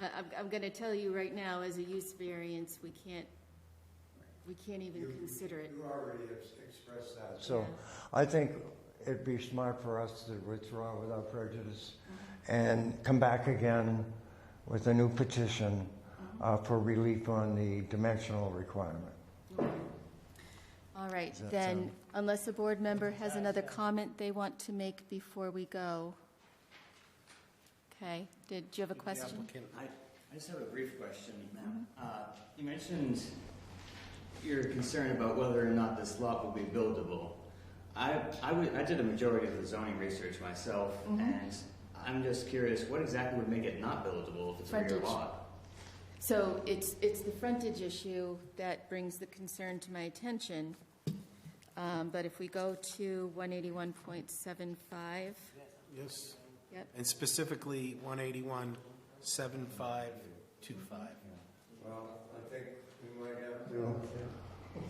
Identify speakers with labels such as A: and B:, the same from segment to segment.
A: I- I'm, I'm gonna tell you right now, as a use variance, we can't, we can't even consider it.
B: You already ex- expressed that.
C: So I think it'd be smart for us to withdraw without prejudice
A: Mm-hmm.
C: and come back again with a new petition uh,
A: Mm-hmm.
C: for relief on the dimensional requirement.
A: All right,
C: that
A: then,
C: sound-
A: unless a board member has another comment they want to make before we go. Okay, did, do you have a question?
D: I, I just have a brief question, ma'am. Uh, you mentioned your concern about whether or not this lot will be buildable. I, I, would, I did a majority of the zoning research myself, and I'm just curious, what exactly would make it not buildable if it's a rear
A: Frontage.
D: lot?
A: So it's, it's the frontage issue that brings the concern to my attention. Um, but if we go to one eighty-one point seven five,
E: Yes,
A: yep,
E: and specifically one eighty-one, seven five, two five.
B: Well, I think we might have to,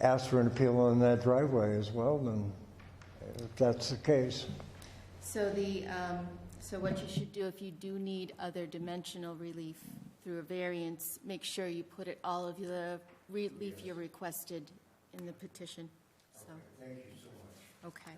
C: Ask for an appeal on that driveway as well, then, if that's the case.
A: So the, um, so what you should do if you do need other dimensional relief through a variance, make sure you put it, all of the relief you requested in the petition, so,
B: thank you so much.
A: okay.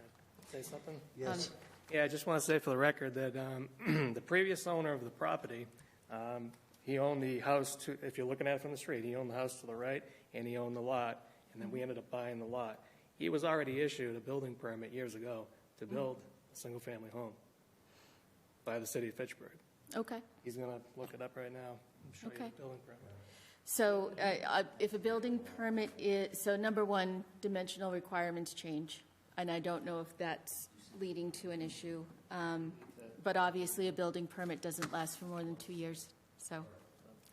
F: Say something?
A: Yes.
F: Um, Yeah, I just want to say for the record that um, the previous owner of the property, um, he owned the house to, if you're looking at it from the street, he owned the house to the right, and he owned the lot, and then we ended up buying the lot. He was already issued a building permit years ago
A: Mm.
F: to build a single-family home by the city of Fitchburg.
A: Okay,
F: He's going to look it up right now. I'm sure he has a
A: Okay.
F: building permit.
A: so, uh, uh, if a building permit is, so number one, dimensional requirements change, and I don't know if that's leading to an issue. Um, but obviously, a building permit doesn't last for more than two years, so,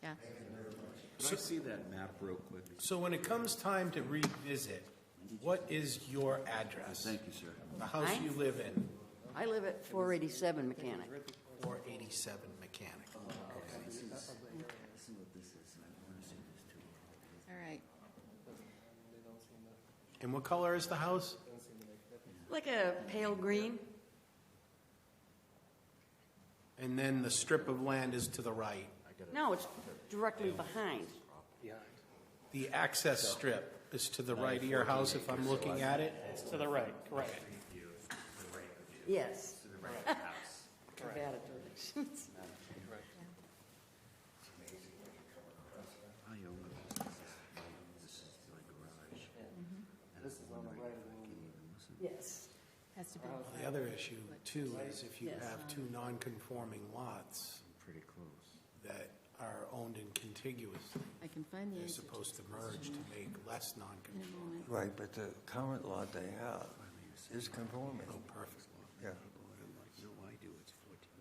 A: yeah.
G: Can I see that map real quick?
E: So when it comes time to revisit, what is your address?
G: Thank you, sir.
E: The house you live in,
H: I live at 487 Mechanic.
E: four eighty-seven mechanic.
A: All right,
E: And what color is the house?
H: Like a pale green?
E: And then the strip of land is to the right,
H: No, it's directly behind.
E: the access strip is to the right of your house if I'm looking at it.
F: It's to the right, correct.
H: Yes. I've had it. Yes.
A: has to be.
E: The other issue too is if you have two non-conforming lots that are owned and contiguous,
A: I can find the
E: they're
A: answer. to
E: supposed to merge to make less non-conforming.
C: Right, but the current lot they have is conforming.
E: Oh, perfect.
C: Yeah.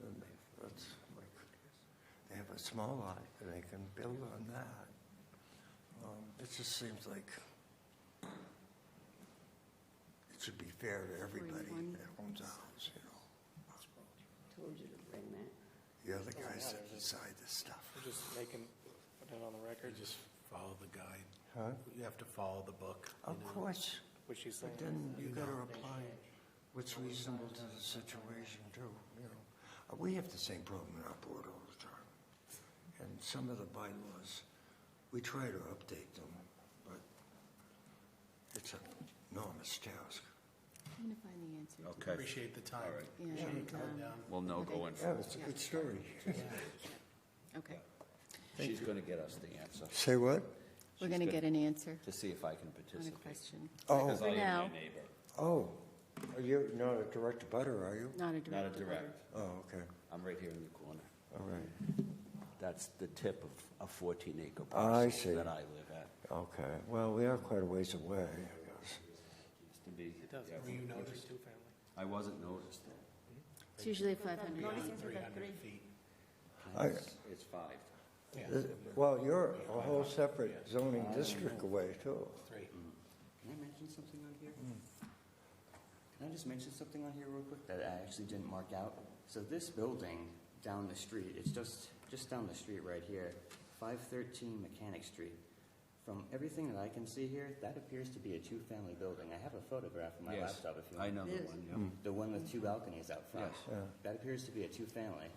C: And that's like, They have a small lot, and they can build on that. Um, It just seems like it should be fair to everybody that owns a house, you know?
H: Told you to bring that.
C: You're the
E: Oh,
C: guys that decide this stuff.
F: We're just making, putting it on the
E: You
F: record,
E: just follow the guide.
C: Huh?
E: You have to follow the book.
C: Of course,
F: which he's saying.
C: but then you gotta apply what's reasonable to the situation too, you know? Uh, We have the same problem in our board all the time. And some of the bylaws, we try to update them, but it's an enormous task.
A: I'm gonna find the answer. to-
G: Okay.
E: Appreciate the time.
A: Yeah,
E: Appreciate you
A: and,
E: coming
A: um,
E: down.
G: Well, no, go in.
C: Yeah, it's a good story.
A: um, Okay,
G: She's going to get us the answer
C: Say what?
A: we're gonna get an answer
G: to see if I can
A: on a
G: participate.
A: question,
C: Oh,
G: Because I am
A: now.
G: your neighbor,
C: oh, Are you not a direct butter, are you?
A: not a
G: not a
A: direct.
G: direct.
C: Oh, okay,
G: I'm right here in the corner.
C: all right,
G: That's the tip of a 14 acre
C: I
G: parcel
C: see.
G: that I live at.
C: okay. Well, we are quite a ways away, I guess.
G: Used to be-
F: It does,
G: yeah,
F: it's
E: you
F: a
E: noticed?
F: two-family.
G: I wasn't noticed.
A: It's usually five hundred.
E: Three hundred feet.
C: I-
G: It's- It's five.
C: This- Well, you're a whole separate zoning district away, too.
E: Three.
D: Can I mention something on here? Can I just mention something on here real quick that I actually didn't mark out? So this building down the street, it's just, just down the street right here, five thirteen Mechanic Street. From everything that I can see here, that appears to be a two-family building. I have a photograph on my
G: Yes.
D: laptop if you
G: I
D: want.
G: know the
H: Yes.
G: one, yeah.
D: The one with two balconies out front.
G: Yes.
C: Yeah.
D: That appears to be a two-family.